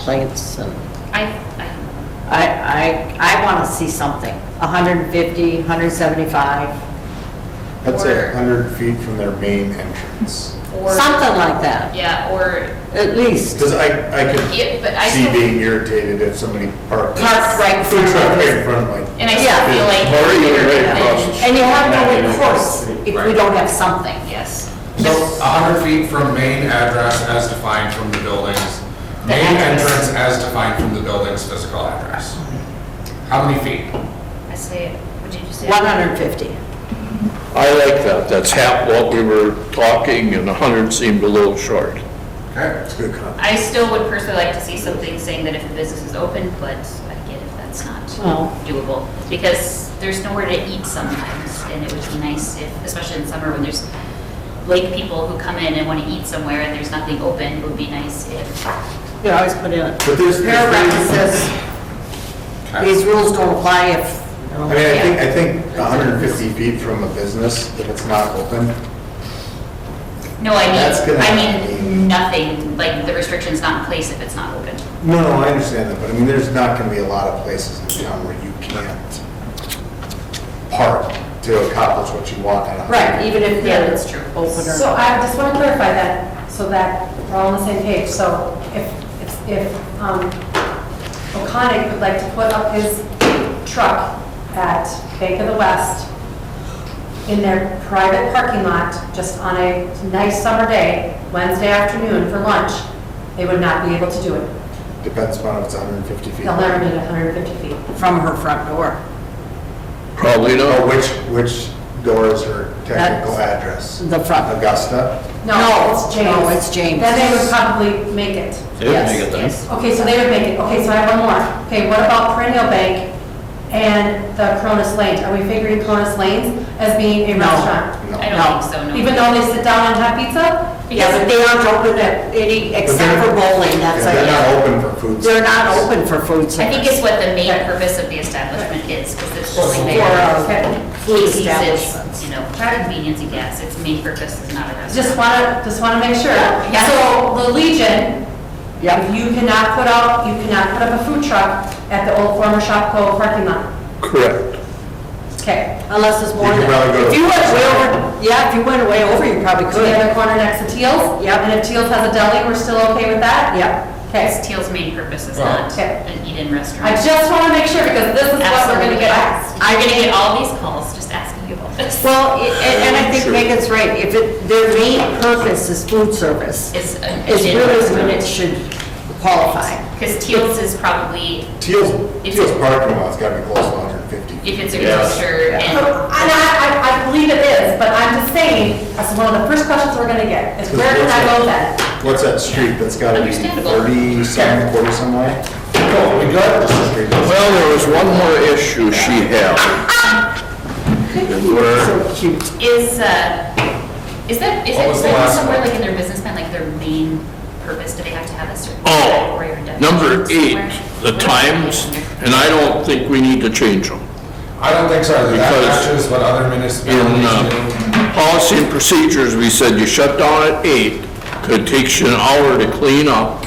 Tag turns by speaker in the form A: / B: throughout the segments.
A: complaints and,
B: I, I,
A: I, I, I want to see something, 150, 175,
C: I'd say
B: Or-
C: 100 feet from their main entrance.
B: or.
A: something like that,
B: Yeah, or,
A: at least.
C: Because I, I could
B: yeah, but I
C: see
B: still,
C: being irritated if somebody parked.
A: Park right in
C: Food
A: front
C: truck
A: of
C: right
A: us.
C: in front of my.
B: and I
A: Yeah.
B: still feel like.
C: Or even right
B: they're
C: across the
B: in-
A: And you have no
C: Not even-
A: recourse if we
D: Right.
A: don't have something.
B: Yes,
D: So 100 feet from main address as defined from the building's, main entrance as defined from the building's physical address. How many feet?
B: I say, what did you say?
A: 150.
E: I like that, that's half what we were talking, and 100 seemed a little short.
D: Okay?
C: It's a good comment.
B: I still would personally like to see something saying that if the business is open, but I get if that's not
A: Well.
B: doable. Because there's nowhere to eat sometimes, and it would be nice if, especially in summer when there's lake people who come in and want to eat somewhere and there's nothing open, it would be nice if.
A: You always put in a
C: But there's.
A: paragraph that says,
D: Okay.
A: these rules don't apply if, you know.
C: I mean, I think, I think 150 feet from a business, if it's not open,
B: No, I
C: That's
B: mean,
C: gonna-
B: I mean, nothing, like the restriction's not in place if it's not open.
C: No, no, I understand that, but I mean, there's not gonna be a lot of places in town where you can't park to accomplish what you want on a.
A: Right, even if
B: Yeah,
A: they're
B: that's true.
A: open or.
F: So I just want to clarify that, so that we're all on the same page. So if, if- if um, O'Conic would like to put up his truck at Bank of the West in their private parking lot, just on a nice summer day, Wednesday afternoon for lunch, they would not be able to do it.
C: Depends upon if it's 150 feet.
F: They'll never get 150 feet.
A: From her front door.
E: Probably
C: Or
E: not.
C: which, which door is her technical address?
A: The front.
C: Augusta?
A: No,
F: No, it's James.
A: no, it's James.
F: Then they would probably make it.
A: Yes.
F: Okay, so they would make it, okay, so I have one more. Okay, what about perennial bank and the Cronus Lanes? Are we figuring Cronus Lanes as being a
A: No.
F: restaurant?
C: No.
B: I
A: No.
B: don't think so, no.
F: Even though they sit down and have pizza?
A: Yeah, but they aren't open at any, except for bowling, that's
C: They're
A: like,
C: not open for food.
A: they're not
C: service.
A: open for food
B: I think
A: service.
B: it's what the main purpose of the establishment is, because it's
D: Well,
B: only
A: For
B: there.
A: uh, food
B: Casey's is,
A: establishments.
B: you know, convenience and gas, its main purpose is not a
F: Just
B: restaurant.
F: wanna, just wanna make sure.
B: Yeah.
F: So the Legion,
A: Yep.
F: you cannot put up, you cannot put up a food truck at the old former Shopko parking lot.
E: Correct.
F: Okay.
A: Unless it's more than.
C: You could probably go to-
A: If you went way over, yeah, if you went way over, you probably
F: To the
A: could.
F: other corner next to Teal's?
A: Yep.
F: And if Teal's has a deli, we're still okay with that?
A: Yep.
F: Okay.
B: Teal's main purpose is
D: Well,
B: not
F: okay.
B: an eat-in restaurant.
F: I just wanna make sure because this is what we're gonna
B: Absolutely.
F: get asked.
B: You're gonna get all these calls just asking you about this.
A: Well, i- and and I think Megan's right, if it, their main purpose is food service,
B: It's an
A: is
B: in
A: really when it should qualify.
B: Because Teal's is probably,
C: Teal's,
B: It's-
C: Teal's parking lot's gotta be close to 150. feet.
B: if it's a
E: Yeah.
B: grocer
F: And
B: and,
F: I, I, I believe it is, but I'm just saying, that's one of the first questions we're gonna get, is where can I go then?
C: What's that street that's gotta be
B: Understandable.
C: 30 some, 40 some way?
E: Well, Oh, we got-
C: This is street.
E: Well, there was one more issue she had. And where-
A: So cute.
B: is, uh, is that, is
D: What
B: it
D: was the
B: like
D: last
B: somewhere
D: one?
B: like in their business plan, like their main purpose, do they have to have a certain?
E: Oh,
B: category or definition
E: number eight,
B: somewhere?
E: the
B: What about
E: times,
B: in there?
E: and I don't think we need to change them.
D: I don't think so, that
E: Because-
D: matches what other
E: In
D: municipalities do.
E: uh, policy and procedures, we said you shut down at eight, it takes you an hour to clean up,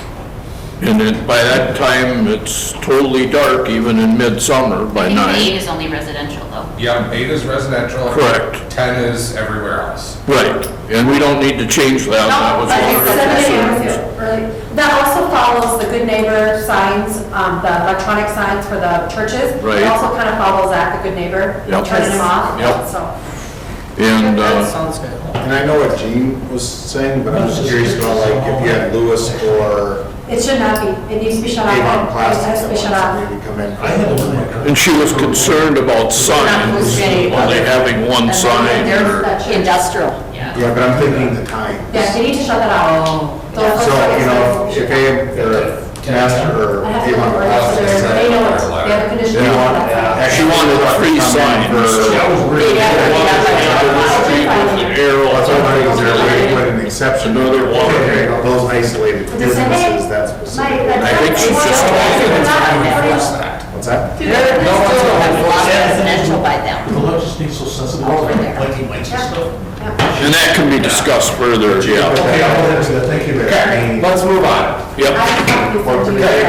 E: and then by that time, it's totally dark, even in midsummer by
B: I think
E: nine.
B: Eight is only residential though.
D: Yep, eight is residential.
E: Correct.
D: 10 is everywhere else.
E: Right, and we don't need to change that, that
F: No,
E: was
F: Oh,
E: one
F: but it's
E: of
F: seven
E: our
F: a.m.
E: concerns.
F: is early. That also follows the good neighbor signs, um, the electronic signs for the churches.
E: Right.
F: It also kind of follows that, the good neighbor,
E: Yep.
F: turning them off,
E: Yep.
F: so.
E: And,
A: That
E: uh,
A: sounds good.
C: And I know what Gene was saying, but I'm just curious about like if you had Lewis or
F: It should not be, it needs to be shut off.
C: Avon
F: It
C: Plastics
F: has to
C: that
F: be
C: wants
F: shut
C: to
F: off.
C: maybe come in.
E: and she was concerned about signs, only having one sign or,
F: That should-
A: Industrial.
B: Yeah.
C: Yeah, but I'm thinking the times.
F: Yeah, they need to shut that
A: Oh.
F: off. Those- those
C: So, you know,
F: signs-
C: if AM, or Master or
F: I have to
C: Avon
F: look at
C: Plastics.
F: it, so they
C: that-
F: know it, they have a
C: They
F: condition.
C: want,
E: she wanted three
C: For
E: signs. Arrow,
C: That's why I think there a way to put an exception.
E: Another one.
C: Okay, Those isolated businesses, that's specific.
E: I think she's just talking
C: What's that?
A: They're
D: No one's
A: still
D: going
A: have a lot of
D: for it.
A: residential by them.
G: The legislature so sensitive, like lighting lights and stuff. She
E: And that can be discussed further, yeah.
C: Okay, I'll hold it to that. Thank you, Mayor.
D: Okay, let's move on.
E: Yep.
F: I have copies of you.